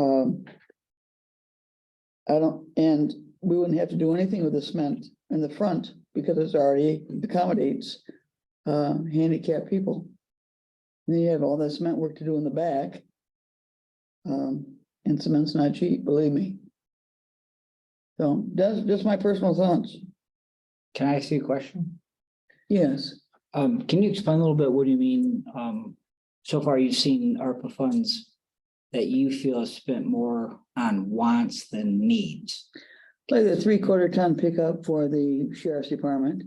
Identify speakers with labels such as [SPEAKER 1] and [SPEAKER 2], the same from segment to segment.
[SPEAKER 1] Um, I don't, and we wouldn't have to do anything with the cement in the front because it's already accommodates uh, handicapped people. And Then you have all that cement work to do in the back. Um, and cement's not cheap, believe me. So that's just my personal thoughts.
[SPEAKER 2] Can I ask you a question?
[SPEAKER 1] Yes,
[SPEAKER 2] Um, can you explain a little bit, what do you mean, um, so far you've seen ARPA funds that you feel have spent more on wants than needs?
[SPEAKER 1] like the three quarter ton pickup for the sheriff's department.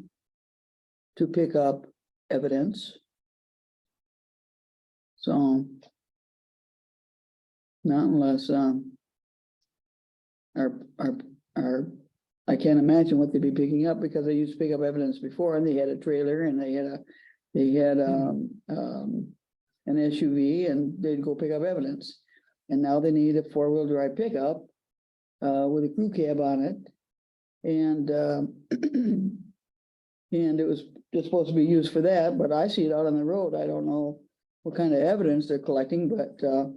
[SPEAKER 1] To pick up evidence. So. Not unless, um. Our, our, our, I can't imagine what they'd be picking up because they used to pick up evidence before and they had a trailer and they had a, they had, um, um. An SUV and they'd go pick up evidence. And now they need a four wheel drive pickup uh, with a crew cab on it. And, um, and it was, it's supposed to be used for that, but I see it out on the road. I don't know what kind of evidence they're collecting, but, uh,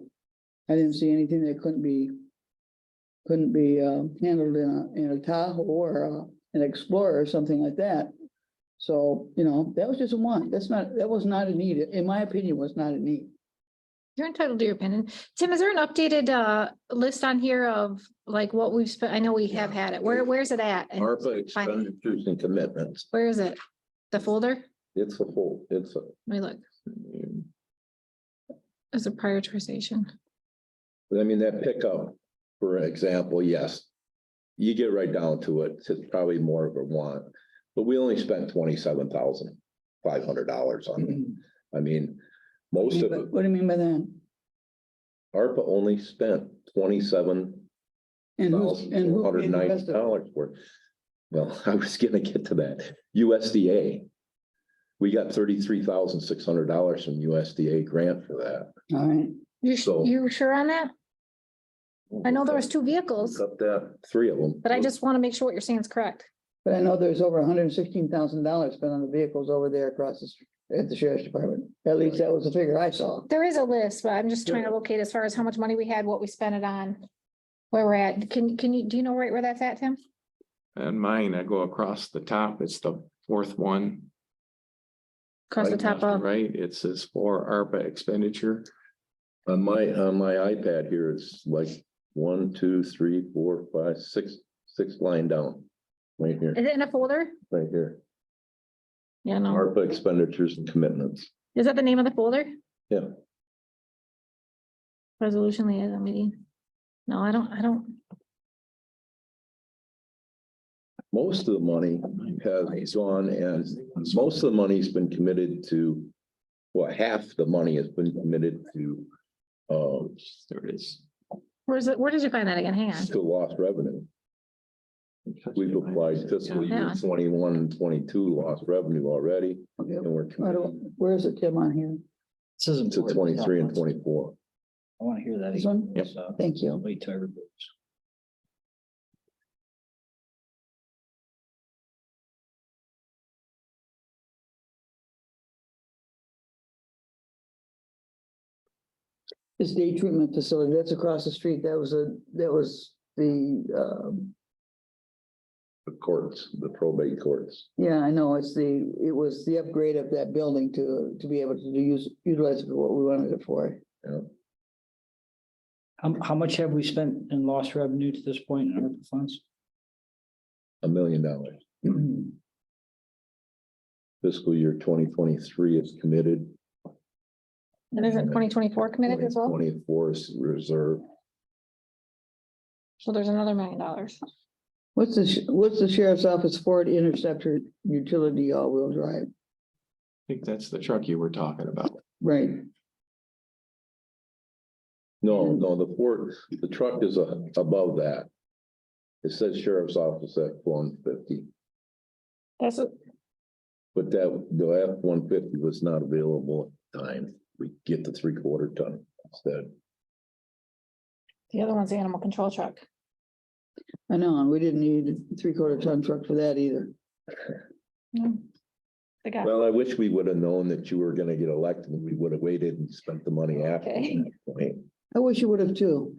[SPEAKER 1] I didn't see anything that couldn't be, couldn't be, um, handled in a, in a Tahoe or, uh, an Explorer or something like that. So, you know, that was just a want. That's not, that was not a need. In my opinion, was not a need.
[SPEAKER 3] You're entitled to your opinion. Tim, is there an updated uh list on here of like what we've spent? I know we have had it. Where, where's it at? And
[SPEAKER 4] ARPA
[SPEAKER 3] Fine.
[SPEAKER 4] expenditures and commitments,
[SPEAKER 3] Where is it? The folder?
[SPEAKER 4] it's a whole, it's a,
[SPEAKER 3] Let me look. There's a prioritization.
[SPEAKER 4] I mean, that pickup, for example, yes. You get right down to it, it's probably more of a want, but we only spent twenty-seven thousand five hundred dollars on it. I mean, most of it,
[SPEAKER 1] What do you mean by that?
[SPEAKER 4] ARPA only spent twenty-seven
[SPEAKER 1] And who's,
[SPEAKER 4] thousand
[SPEAKER 1] and
[SPEAKER 4] four
[SPEAKER 1] who
[SPEAKER 4] hundred
[SPEAKER 1] paid
[SPEAKER 4] and
[SPEAKER 1] the
[SPEAKER 4] ninety
[SPEAKER 1] rest of it?
[SPEAKER 4] dollars worth. Well, I was gonna get to that. USDA. We got thirty-three thousand six hundred dollars from USDA grant for that.
[SPEAKER 1] All right.
[SPEAKER 3] You, sh-
[SPEAKER 4] So-
[SPEAKER 3] you sure on that? I know there was two vehicles,
[SPEAKER 4] Up that, three of them.
[SPEAKER 3] but I just want to make sure what you're saying is correct.
[SPEAKER 1] But I know there's over hundred and sixteen thousand dollars spent on the vehicles over there across the, street at the sheriff's department. At least that was the figure I saw.
[SPEAKER 3] There is a list, but I'm just trying to locate as far as how much money we had, what we spent it on. Where we're at. Can, can you, do you know right where that's at, Tim?
[SPEAKER 5] And mine, I go across the top, it's the fourth one.
[SPEAKER 3] Across the
[SPEAKER 4] Right,
[SPEAKER 3] top of,
[SPEAKER 5] Right, it says for ARPA expenditure.
[SPEAKER 4] On my, on my iPad here, it's like one, two, three, four, five, six, six line down. Right here,
[SPEAKER 3] is it Oh. in a folder?
[SPEAKER 4] right here.
[SPEAKER 3] Yeah, no.
[SPEAKER 4] ARPA expenditures and commitments.
[SPEAKER 3] Is that the name of the folder?
[SPEAKER 4] Yeah.
[SPEAKER 3] Resolution liaison meeting. No, I don't, I don't,
[SPEAKER 4] Most of the money has gone and most of the money's been committed to, well, half the money has been committed to, um,
[SPEAKER 5] There it is.
[SPEAKER 3] where's it, where did you find that again? Hang on.
[SPEAKER 4] to lost revenue. We've applied fiscal year
[SPEAKER 3] Yeah.
[SPEAKER 4] 21 and 22 lost revenue already,
[SPEAKER 1] Okay,
[SPEAKER 4] and we're
[SPEAKER 1] I
[SPEAKER 4] committed
[SPEAKER 1] don't- where is it, Tim, on here?
[SPEAKER 2] This is
[SPEAKER 4] to
[SPEAKER 2] important.
[SPEAKER 4] twenty-three and twenty-four.
[SPEAKER 2] I want to hear that.
[SPEAKER 1] This
[SPEAKER 2] again,
[SPEAKER 1] one?
[SPEAKER 5] Yep.
[SPEAKER 2] so
[SPEAKER 1] Thank you.
[SPEAKER 2] Wait till everybody's.
[SPEAKER 1] This day treatment facility, that's across the street. That was a, that was the, um,
[SPEAKER 4] the courts, the probate courts.
[SPEAKER 1] yeah, I know, it's the, it was the upgrade of that building to, to be able to use, utilize it for what we wanted it for.
[SPEAKER 2] How, how much have we spent in lost revenue to this point in ARPA funds?
[SPEAKER 4] A million dollars. Fiscal year twenty twenty-three is committed.
[SPEAKER 3] And isn't twenty twenty-four committed as well?
[SPEAKER 4] Twenty-four is reserved.
[SPEAKER 3] So there's another million dollars.
[SPEAKER 1] What's the, sh- what's the sheriff's office Ford Interceptor utility all-wheel drive?
[SPEAKER 5] I think that's the truck you were talking about.
[SPEAKER 1] Right,
[SPEAKER 4] No,
[SPEAKER 3] Mm-hmm.
[SPEAKER 4] no, the Ford, the truck is uh, above that. It says sheriff's office at one fifty,
[SPEAKER 3] That's, what-
[SPEAKER 4] but that, the F one fifty was not available at the time. We get the three-quarter ton instead.
[SPEAKER 3] the other one's the animal control truck.
[SPEAKER 1] I know, and we didn't need a three-quarter ton truck for that either.
[SPEAKER 3] No. The guy.
[SPEAKER 4] Well, I wish we would have known that you were gonna get elected. We would have waited and spent the money after.
[SPEAKER 3] Okay.
[SPEAKER 4] that point.
[SPEAKER 1] I wish you would have too.